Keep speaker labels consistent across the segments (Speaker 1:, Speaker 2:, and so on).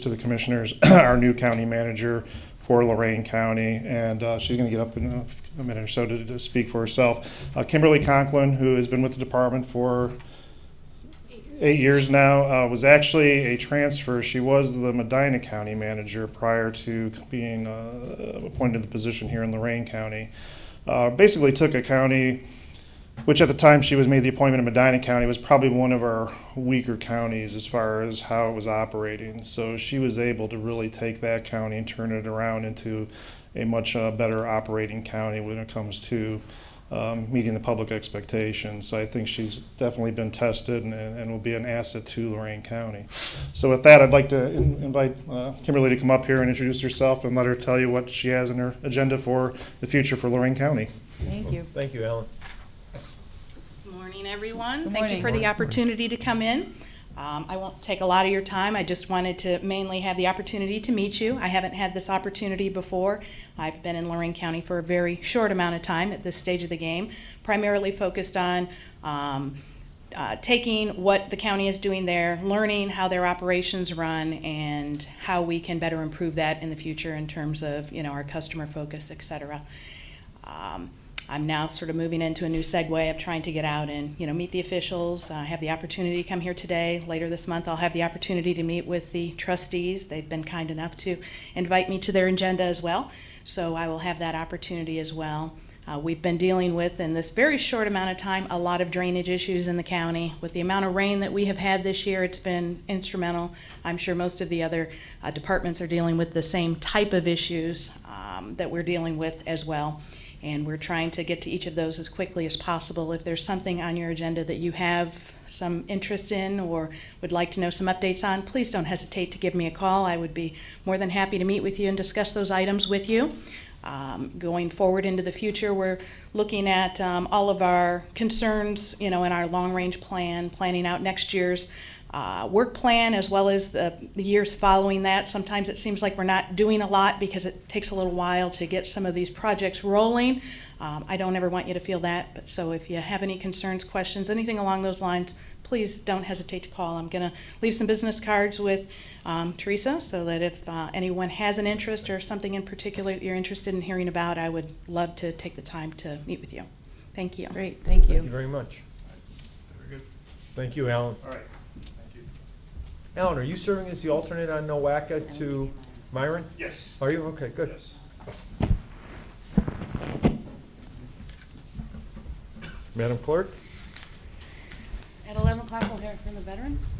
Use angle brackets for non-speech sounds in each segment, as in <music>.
Speaker 1: to the commissioners, <clears throat> our new county manager for Lorraine County, and uh, she's going to get up in a- a minute or so to to speak for herself. Uh, Kimberly Conklin, who has been with the department for eight years now, uh, was actually a transfer. She was the Medina County manager prior to being uh, appointed to the position here in Lorraine County. Uh, Basically took a county which at the time she was made the appointment in Medina County was probably one of our weaker counties as far as how it was operating. So she was able to really take that county and turn it around into a much uh, better operating county when it comes to um, meeting the public expectations. So I think she's definitely been tested and, and will be an asset to Lorraine County. So with that, I'd like to in- invite uh, Kimberly to come up here and introduce herself and let her tell you what she has in her agenda for the future for Lorraine County.
Speaker 2: Thank you.
Speaker 3: Thank you, Alan.
Speaker 4: Morning, everyone.
Speaker 2: Good
Speaker 4: Thank you for
Speaker 2: morning.
Speaker 4: the opportunity to come in. Um, I won't take a lot of your time. I just wanted to mainly have the opportunity to meet you. I haven't had this opportunity before. I've been in Lorraine County for a very short amount of time at this stage of the game, primarily focused on um, uh, taking what the county is doing there, learning how their operations run, and how we can better improve that in the future in terms of, you know, our customer focus, et cetera. Um, I'm now sort of moving into a new segue of trying to get out and, you know, meet the officials. I have the opportunity to come here today. Later this month, I'll have the opportunity to meet with the trustees. They've been kind enough to invite me to their agenda as well, so I will have that opportunity as well. Uh, We've been dealing with, in this very short amount of time, a lot of drainage issues in the county. With the amount of rain that we have had this year, it's been instrumental. I'm sure most of the other uh, departments are dealing with the same type of issues um, that we're dealing with as well. And we're trying to get to each of those as quickly as possible. If there's something on your agenda that you have some interest in or would like to know some updates on, please don't hesitate to give me a call. I would be more than happy to meet with you and discuss those items with you. Um, Going forward into the future, we're looking at um, all of our concerns, you know, in our long-range plan, planning out next year's uh, work plan as well as the the years following that. Sometimes it seems like we're not doing a lot because it takes a little while to get some of these projects rolling. Um, I don't ever want you to feel that, but so if you have any concerns, questions, anything along those lines, please don't hesitate to call. I'm going to leave some business cards with um, Teresa so that if uh, anyone has an interest or something in particular that you're interested in hearing about, I would love to take the time to meet with you. Thank you.
Speaker 2: Great, thank
Speaker 3: Thank you
Speaker 2: you.
Speaker 3: very much.
Speaker 1: Very good.
Speaker 3: Thank you, Alan.
Speaker 1: All right. Thank you.
Speaker 3: Alan, are you serving as the alternate on Nowaka to Myron?
Speaker 1: Yes.
Speaker 3: Are you? Okay, good.
Speaker 1: Yes.
Speaker 3: Madam Clerk?
Speaker 5: uh, At 11 o'clock, we'll hear from the veterans.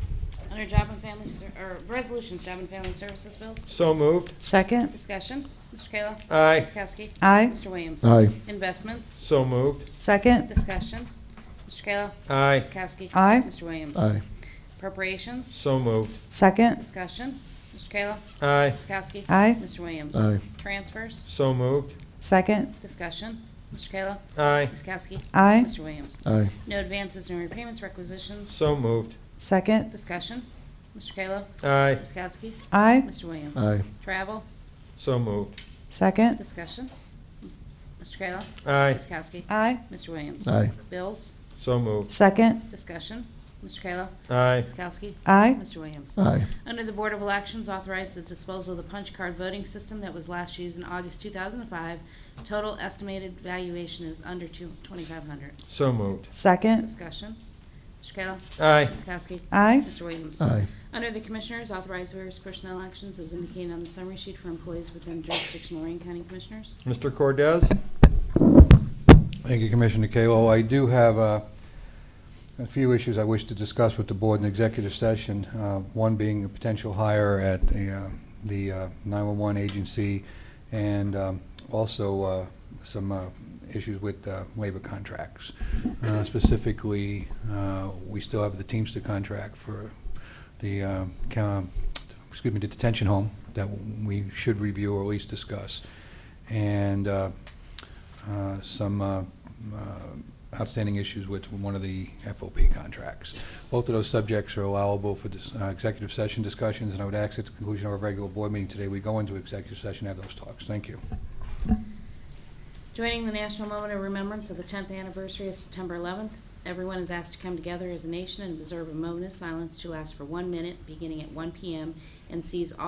Speaker 5: Under Job and Family, Ser- or Resolutions, Job and Family Services Bills.
Speaker 3: So moved.
Speaker 2: Second,
Speaker 5: Discussion, Mr. Kayla.
Speaker 3: Aye.
Speaker 5: Ms. Kowski.
Speaker 2: Aye.
Speaker 5: Mr. Williams.
Speaker 6: Aye.
Speaker 5: Investments,
Speaker 3: So moved.
Speaker 2: second,
Speaker 5: discussion, Mr. Kayla.
Speaker 3: Aye.
Speaker 5: Ms. Kowski.
Speaker 2: Aye.
Speaker 5: Mr. Williams.
Speaker 6: Aye.
Speaker 5: Appropriations,
Speaker 3: So moved.
Speaker 2: second,
Speaker 5: discussion, Mr. Kayla.
Speaker 3: Aye.
Speaker 5: Ms. Kowski.
Speaker 2: Aye.
Speaker 5: Mr. Williams.
Speaker 6: Aye.
Speaker 5: Transfers,
Speaker 3: So moved.
Speaker 2: second,
Speaker 5: discussion, Mr. Kayla.
Speaker 3: Aye.
Speaker 5: Ms. Kowski.
Speaker 2: Aye.
Speaker 5: Mr. Williams.
Speaker 6: Aye.
Speaker 5: No advances, no repayments, requisitions,
Speaker 3: So moved.
Speaker 2: second,
Speaker 5: discussion, Mr. Kayla.
Speaker 3: Aye.
Speaker 5: Ms. Kowski.
Speaker 2: aye,
Speaker 5: Mr. Williams.
Speaker 6: Aye.
Speaker 5: Travel,
Speaker 3: So moved.
Speaker 2: second,
Speaker 5: Discussion. Mr. Kayla.
Speaker 3: Aye.
Speaker 5: Ms. Kowski.
Speaker 2: aye,
Speaker 5: Mr. Williams.
Speaker 6: Aye.
Speaker 5: Bills.
Speaker 3: So moved.
Speaker 2: second,
Speaker 5: Discussion. Mr. Kayla.
Speaker 3: Aye.
Speaker 5: Ms. Kowski.
Speaker 2: aye,
Speaker 5: Mr. Williams.
Speaker 6: Aye.
Speaker 5: Under the Board of Elections, authorize the disposal of the punch card voting system that was last used in August 2005. Total estimated valuation is under two- 2,500.
Speaker 3: So moved.
Speaker 2: second,
Speaker 5: Discussion. Mr. Kayla.
Speaker 3: Aye.
Speaker 5: Ms. Kowski.
Speaker 2: aye,
Speaker 5: Mr. Williams.
Speaker 6: Aye.
Speaker 5: Under the Commissioners, authorize various personnel actions as indicated on the summary sheet for employees within jurisdiction of Lorraine County Commissioners.
Speaker 3: Mr. Cordez?
Speaker 7: Thank you, Commissioner Kalo. I do have uh, a few issues I wish to discuss with the board in executive session, uh, one being a potential hire at the uh, the, uh, 911 agency, and um, also uh, some uh, issues with uh, labor contracts. Uh, Specifically, uh, we still have the Teamster contract for the, uh, coun- excuse me, the detention home that we should review or at least discuss. And uh, uh, some uh, uh, outstanding issues with one of the FOP contracts. Both of those subjects are allowable for dis- uh, executive session discussions, and I would ask at the conclusion of our regular board meeting today, we go into executive session and have those talks. Thank you.
Speaker 5: Joining the National Moment of Remembrance of the 10th anniversary of September 11th, everyone is asked to come together as a nation and observe a moment of silence to last for one minute, beginning at 1 p.m., and seize all.